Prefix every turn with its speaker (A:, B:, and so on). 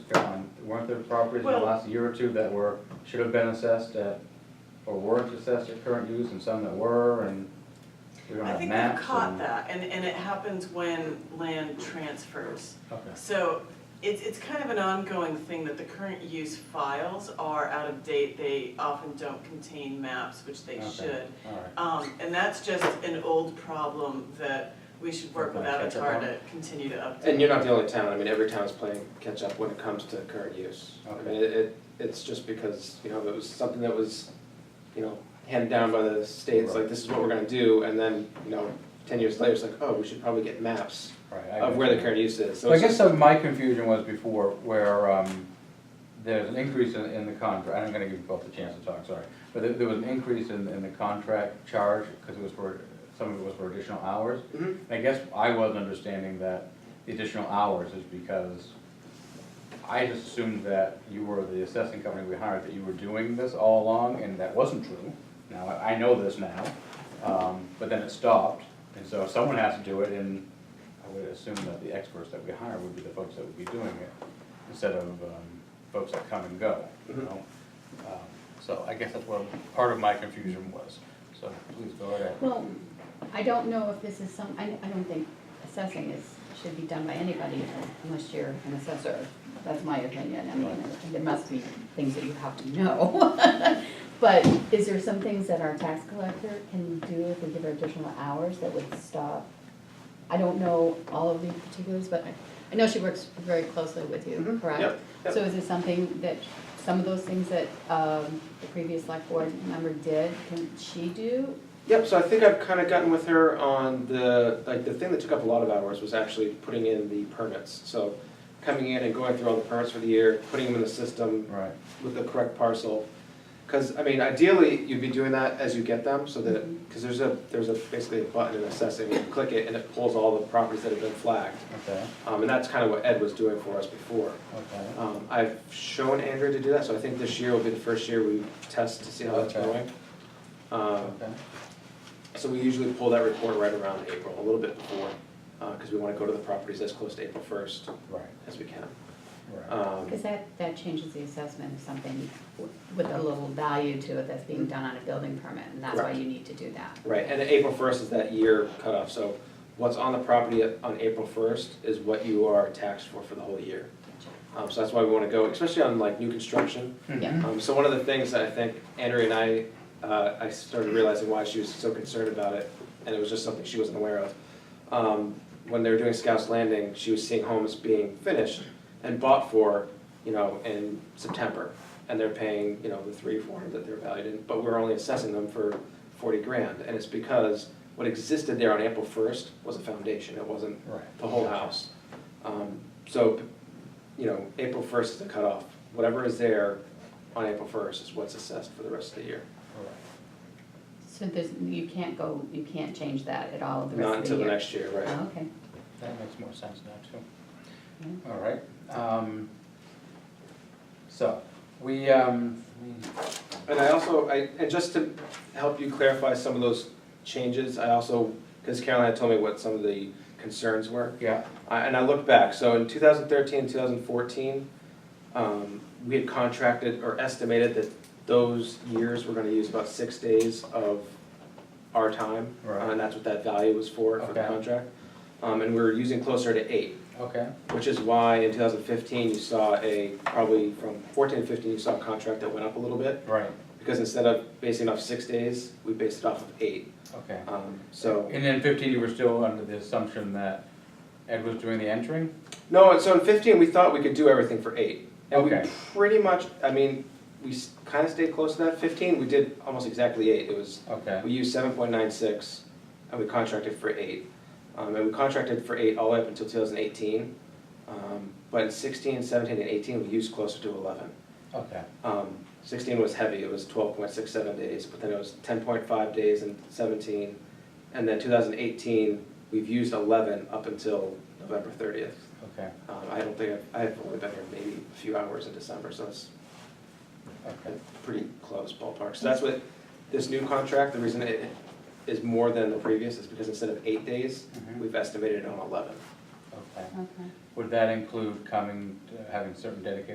A: weren't there properties in the
B: Well-
A: last year or two that were, should have been assessed at, or weren't assessed at current use and some that were and we don't
B: I
A: have
B: think
A: maps
B: we've caught
A: and-
B: that, and, and it happens when land transfers.
A: Okay.
B: So it's, it's kind of an ongoing thing that the current use files are out of date. They often don't contain maps, which they
A: Okay.
B: should.
A: All right.
B: Um, and that's just an old problem that we should work with
A: Like catch up
B: Avatar
A: on?
B: to continue to update.
C: And you're not the only town, I mean, every town's playing catch-up when it comes to current use. I mean,
A: Okay.
C: it, it, it's just because, you know, it was something that was, you know, handed down by the states, like,
A: Right.
C: this is what we're gonna do, and then, you know, ten years later, it's like, oh, we should probably get maps
A: Right, I
C: of where the
A: understand.
C: current use is, so
A: So I
C: it's
A: guess
C: just,
A: some of my confusion was before where um, there's an increase in, in the contract, I'm gonna give you both a chance to talk, sorry. But there, there was an increase in, in the contract charge, because it was for, some of it was for additional hours.
C: Mhm.
A: And I guess I wasn't understanding that the additional hours is because I just assumed that you were the assessing company we hired, that you were doing this all along, and that wasn't true. Now, I- I know this now, um, but then it stopped, and so someone has to do it, and I would assume that the experts that we hire would be the folks that would be doing it, instead of um, folks that come and go, you know? Um, So I guess that's what part of my confusion was, so please go ahead.
D: Well, I don't know if this is some, I, I don't think assessing is, should be done by anybody unless you're an assessor. That's my opinion, I mean, there must be things that you have to know. But is there some things that our tax collector can do if we give her additional hours that would stop? I don't know all of the particulars, but I, I know she works very closely with you,
C: Mhm,
D: correct?
C: yep, yep.
D: So is it something that, some of those things that, um, the previous select board member did, can she do?
C: Yep, so I think I've kind of gotten with her on the, like, the thing that took up a lot of hours was actually putting in the permits. So coming in and going through all the permits for the year, putting them in the system
A: Right,
C: with the correct parcel. Because, I mean, ideally, you'd be doing that as you get them, so that, because there's a, there's a, basically a button in assessing, you click it, and it pulls all the properties that have been flagged.
A: okay,
C: Um, and that's kind of what Ed was doing for us before.
A: okay.
C: Um, I've shown Andrew to do that, so I think this year will be the first year we test to see how that's
A: Okay.
C: going. Um,
A: Okay.
C: so we usually pull that report right around April, a little bit before, because we want to go to the properties as close to April first
A: Right,
C: as we can.
A: right.
C: Um,
D: Because that, that changes the assessment of something w- with a little value to it that's being done on a building permit, and that's why
C: Correct.
D: you need to do that.
C: Right, and April first is that year cutoff, so what's on the property on April first is what you are taxed for for the whole year. Um, So that's why we want to go, especially on like new construction.
D: Yeah.
C: Um, So one of the things that I think Andrea and I, uh, I started realizing why she was so concerned about it, and it was just something she wasn't aware of. Um, When they were doing Scouts Landing, she was seeing homes being finished and bought for, you know, in September. And they're paying, you know, the three, four hundred that they're valued in, but we're only assessing them for forty grand. And it's because what existed there on April first was a foundation, it wasn't
A: Right.
C: the whole house. Um, so, you know, April first is the cutoff, whatever is there on April first is what's assessed for the rest of the year.
D: So there's, you can't go, you can't change that at all the
C: Not until
D: rest of the
C: the
D: year?
C: next year, right?
D: Oh, okay.
A: That makes more sense now too. All right, um, so, we, um, we-
C: uh, And I also, I, and just to help you clarify some of those changes, I also, cause Caroline had told me what some of the concerns were.
A: yeah,
C: I- And I looked back, so in 2013, 2014, um, we had contracted or estimated that those years were gonna use about six days of our time. uh,
A: Right.
C: And that's what that value was for, for the
A: Okay.
C: contract. Um, And we were using closer to eight,
A: okay,
C: which is why in 2015, you saw a, probably from 14 to 15, you saw a contract that went up a little bit.
A: right,
C: Because instead of basing off six days, we based it off of eight.
A: okay.
C: Um, So.
A: And then fifteen, you were still under the assumption that Ed was doing the entering?
C: No, so in fifteen, we thought we could do everything for eight. And we
A: Okay.
C: pretty much, I mean, we kind of stayed close to that. Fifteen, we did almost exactly eight. It was,
A: Okay,
C: we used seven point nine six and we contracted for eight. Um, and we contracted for eight all the way up until two thousand eighteen. Um, but in 16, 17, and eighteen, we used closer to eleven.
A: okay,
C: Um, sixteen was heavy, it was twelve point six seven days, but then it was ten point five days in seventeen. And then two thousand eighteen, we've used eleven up until November thirtieth.
A: okay,
C: Um, I don't think, I've, I've only been here maybe a few hours in December, so it's a
A: okay,
C: pretty close ballpark. So that's what, this new contract, the reason it is more than the previous is because instead of eight days,
A: Mhm.
C: we've estimated it on eleven.
A: okay.
D: Oh, Okay.
A: Would that include coming, having certain dedicated